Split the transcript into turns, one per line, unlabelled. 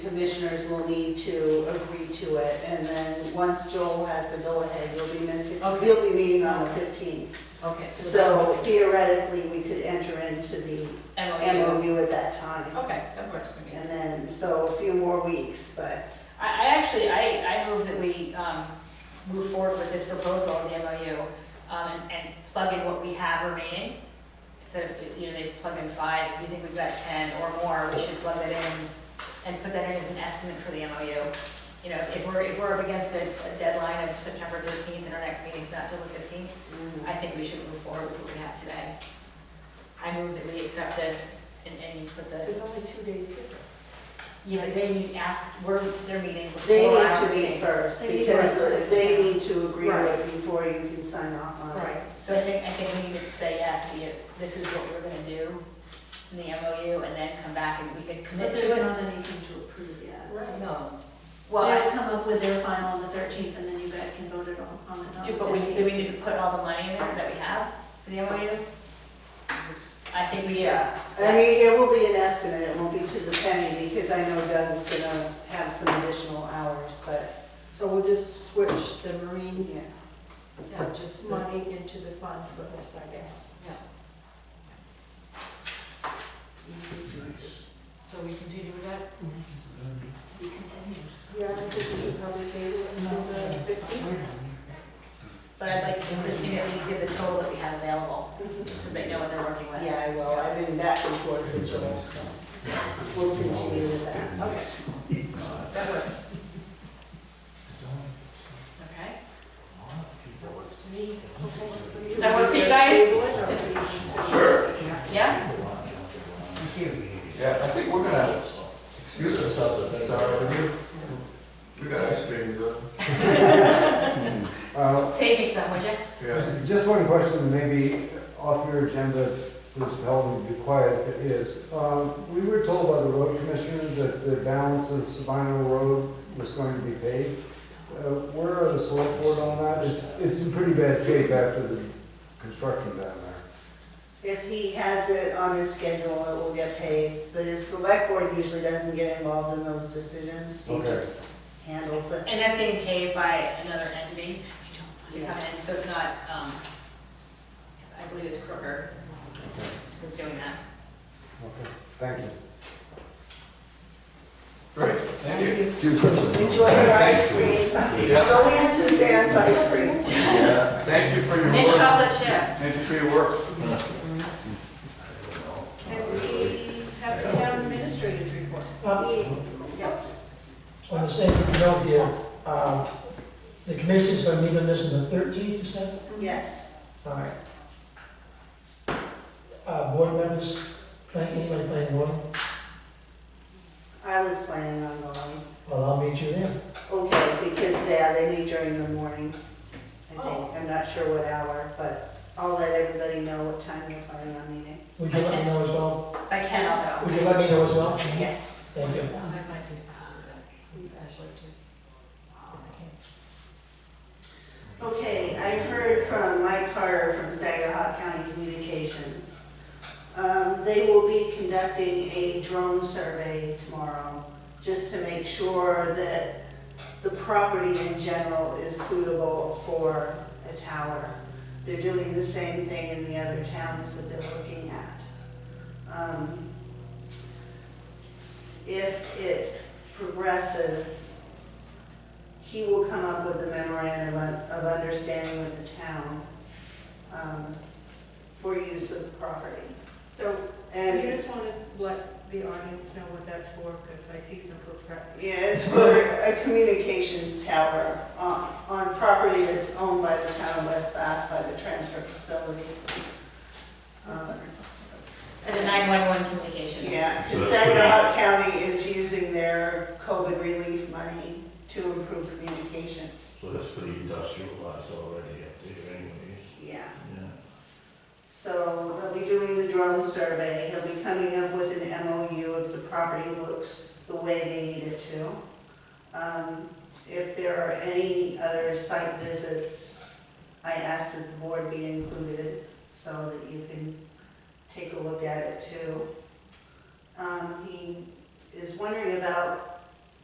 commissioners will need to agree to it, and then once Joel has the go-ahead, you'll be missing,
Okay.
you'll be meeting on the 15th.
Okay,
So
so
theoretically, we could enter into the
that MOU.
MOU at that time,
Okay, that works for me.
and then, so a few more weeks, but
I, I actually, I, I move that we, um, move forward with this proposal of the MOU, um, and, and plug in what we have remaining. Instead of, you know, they plug in five, if you think we've got ten or more, we should plug it in and put that in as an estimate for the MOU. You know, if we're, if we're up against a, a deadline of September thirteenth and our next meeting's not till the fifteenth, I think we should move forward with what we have today. I move that we accept this and, and you put the.
There's only two days different.
Yeah, but they meet after, we're, they're meeting before.
they need
our
to meet
meeting.
first,
They need
because
first.
they need to agree to
Right.
it before you can sign off on it.
Right, so I think, I think we need to say yes, we, this is what we're gonna do in the MOU, and then come back and we can commit
But
to
there's
it.
not anything to approve yet.
No.
Well,
They'll come up with their final on the thirteenth, and then you guys can vote it on, on the
do, but we, do we
fifteenth.
need to put all the money in there that we have for the MOU?
it's-
I think we should.
Yeah, I mean, it will be an estimate, it won't be to the penny, because I know Doug's gonna have some additional hours, but,
So we'll just switch the marine
yeah.
Yeah, just the-
money into the fund for this, I guess.
So we continue with that?
We continue.
Yeah, I think we should probably table it until the fifteenth.
But I'd like to, Christine, at least give the total that we have available, so they know what they're working with.
Yeah, I will, I've been back and forth with Joel, so we'll continue with that.
Okay. That works. Okay. That works for me.
Does that work for you guys?
Sure.
Yeah?
Yeah, I think we're gonna excuse ourselves if that's all right with you. We got ice cream, though.
Uh,
Save me some, would you?
Yeah.
Just one question, maybe off your agenda, please tell me to be quiet if it is. Um, We were told by the road commissioner that the balance of Sabino Road was going to be paid. Uh, Where are the select board on that? It's, it's in pretty bad shape after the construction down there.
If he has it on his schedule, it will get paid. The select board usually doesn't get involved in those decisions, he
Okay.
just handles it.
And that's getting paid by another entity, we don't want to come in, so it's not, um, I believe it's Crooker who's doing that.
Okay, Thank you.
Great, thank you.
Enjoy your ice cream,
Yeah,
go in Suzanne's ice cream.
yeah. Thank you for your
And
work.
chocolate chip.
Thank you for your work.
Can we have the town administrators report?
On the same note here, um, the commission's gonna meet on this on the thirteenth, you said?
Yes,
All right. Uh, board members, thank you, like, playing one,
I was planning on going.
well, I'll meet you there.
Okay, because, yeah, they meet during the mornings, I
Oh.
think. I'm not sure what hour, but I'll let everybody know what time you're planning on meeting.
Would you let me know as well?
If I can, I'll go.
Would you let me know as well?
Yes.
Thank you.
Oh, I'd like to do that. I'd like to. uh,
Okay, I heard from Mike Carter from Saginaw County Communications. Um, They will be conducting a drone survey tomorrow, just to make sure that the property in general is suitable for a tower. They're doing the same thing in the other towns that they're looking at. Um, If it progresses, he will come up with a memorandum of of understanding with the town um, for use of the property.
So you
And,
just want to let the audience know what that's for, because I see some perplexity.
yeah, it's for a communications tower on, on property that's owned by the town of West Bath by the transfer facility. Um,
And the nine-one-one communication.
Yeah, 'cause Saginaw County is using their COVID relief money to improve communications,
So that's pretty industrialized already up there anyways.
yeah.
Yeah.
So they'll be doing the drone survey, he'll be coming up with an MOU if the property looks the way they need it to. Um, If there are any other site visits, I ask that the board be included so that you can take a look at it too. Um, He is wondering about